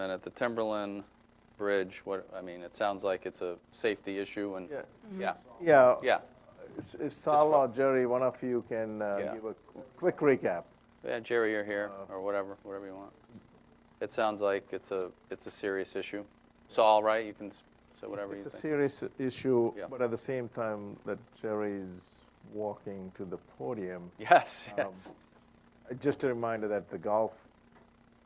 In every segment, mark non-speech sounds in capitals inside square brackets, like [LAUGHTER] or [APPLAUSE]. And at the Timberland Bridge, what, I mean, it sounds like it's a safety issue and, Yeah. yeah, Yeah. yeah. S- If Sal or Jerry, one of you can uh, Yeah. give a qu- quick recap. Yeah, Jerry, you're here, Uh, or whatever, whatever you want. mm-hmm. It sounds like it's a, it's a serious issue. Saul, right, you can s- say whatever you It's a think. serious issue, Yeah. but at the same time that Jerry's walking to the podium, Yes, Um, yes, uh, just a reminder that the golf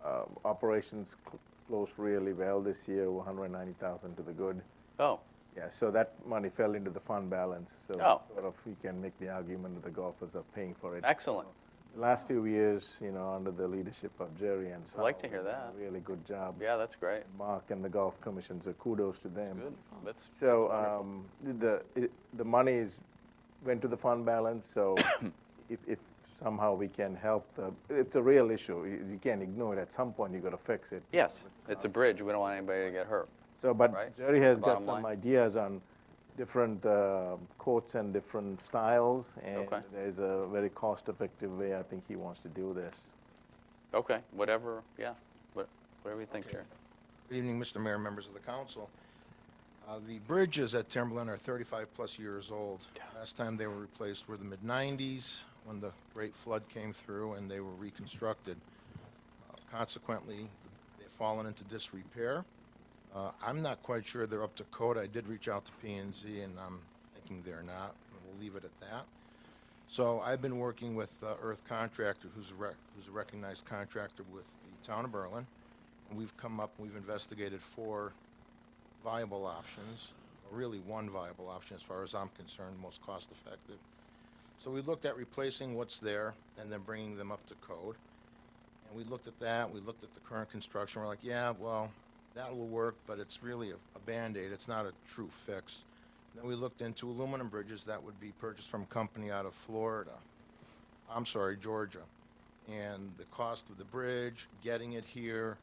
uh, operations cl- closed really well this year, 190,000 to the good. oh, Yeah, so that money fell into the fund balance, so Oh. sort of we can make the argument that the golfers are paying for it. excellent, The last few years, you know, under the leadership of Jerry and Sal. like to they've hear done a that. Really good job. yeah, that's great, Mark and the golf commission, so kudos to them. good, that's, So um, the it, the money is went to the fund balance. [COUGHS] So if, if somehow we can help the, it's a real issue. You, you can't ignore it. At some point, you got to fix it. yes, it's a bridge, we don't want anybody to get hurt. So, but Right. Jerry has Bottom got some line. ideas on different uh, courts and different styles, and Okay. there's a very cost-effective way I think he wants to do this. Okay, whatever, yeah, what- whatever you think, Jerry. Good evening, Mr. Mayor, members of the council. Uh, The bridges at Timberland are 35-plus years old. Last time they were replaced were the mid-'90s, when the great flood came through and they were reconstructed. Uh, Consequently, they've fallen into disrepair. Uh, I'm not quite sure they're up to code. I did reach out to p and Z, and I'm thinking they're not, and we'll leave it at that. So I've been working with uh, Earth Contractor, who's a rec- who's a recognized contractor with the town of Berlin, and we've come up, we've investigated four viable options, or really one viable option as far as I'm concerned, most cost-effective. So we looked at replacing what's there and then bringing them up to code. And we looked at that, we looked at the current construction, we're like, yeah, well, that will work, but it's really a a Band-Aid, it's not a true fix. Then we looked into aluminum bridges that would be purchased from a company out of Florida, I'm sorry, Georgia. And the cost of the bridge, getting it here,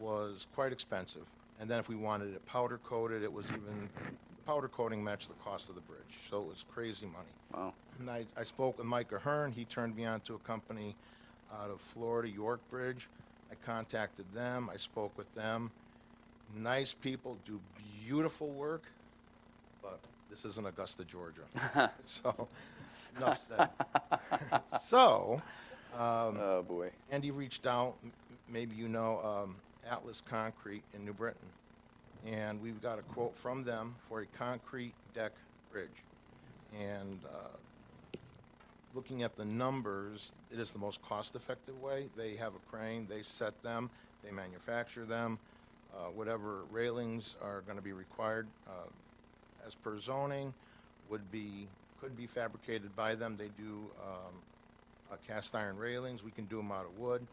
was quite expensive. And then if we wanted it powder coated, it was even, the powder coating matched the cost of the bridge. So it was crazy money. Wow. And I, I spoke with Mike Ahern, he turned me on to a company out of Florida, York Bridge. I contacted them, I spoke with them. Nice people, do beautiful work, but this isn't Augusta, Georgia. So, enough said. So, um, Oh, boy, Andy reached out, m- m- maybe you know, um, Atlas Concrete in New Britain. And we've got a quote from them for a concrete deck bridge. And uh, looking at the numbers, it is the most cost-effective way. They have a crane, they set them, they manufacture them, uh, whatever railings are going to be required uh, as per zoning would be, could be fabricated by them. They do um, uh, cast iron railings, we can do them out of wood.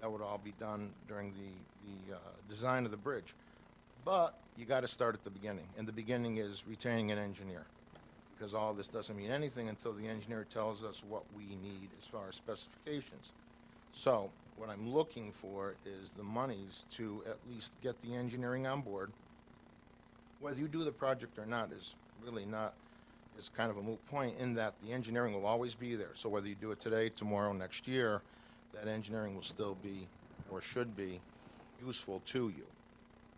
That would all be done during the, the uh, design of the bridge. But you got to start at the beginning, and the beginning is retaining an engineer. Because all this doesn't mean anything until the engineer tells us what we need as far as specifications. So what I'm looking for is the monies to at least get the engineering on board. Whether you do the project or not is really not is kind of a moot point in that the engineering will always be there. So whether you do it today, tomorrow, next year, that engineering will still be, or should be, useful to you.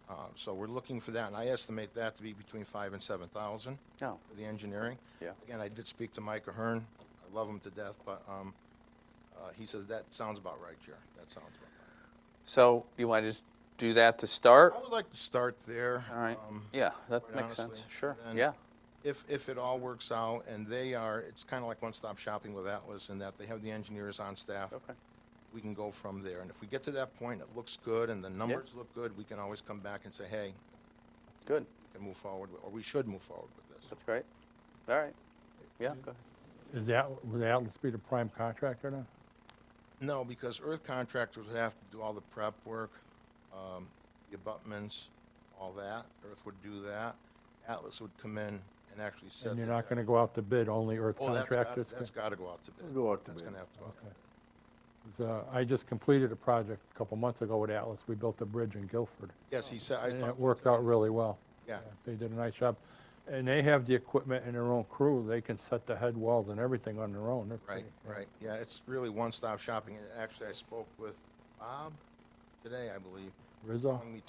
Uh, So we're looking for that, and I estimate that to be between five and seven thousand oh, for the engineering. Yeah. Again, I did speak to Mike Ahern, I love him to death, but um, uh, he says, that sounds about right, Jer, that sounds about right. so you want to just do that to start? I would like to start there. All right. Um, Yeah, that quite makes sense, honestly. sure, And yeah, If, if it all works out, and they are, it's kind of like one-stop shopping with Atlas in that they have the engineers on staff. okay, We can go from there, and if we get to that point, it looks good, and the numbers look good, we can always come back and say, hey, good, we can move forward, with- or we should move forward with this. that's great, all right, yeah, go ahead. Is that, would Atlas be the prime contractor then? No, because earth contractors would have to do all the prep work, um, the abutments, all that, earth would do that. Atlas would come in and actually set. And you're the not deck. gonna go out to bid, only earth Oh, that's gotta, contractors? that's gotta go out to bid. It'll go out to That's bid. gonna have to go out to Okay. bid. It's, uh, I just completed a project a couple months ago with Atlas, we built a bridge in Guilford. Yes, he said, I And it talked- worked out really well. Yeah, They did a nice job. And they have the equipment and their own crew, they can set the head walls and everything on their own. They're right, pretty- right. Yeah, it's really one-stop shopping. And actually, I spoke with Bob today, I believe. Rizzo? Long Beach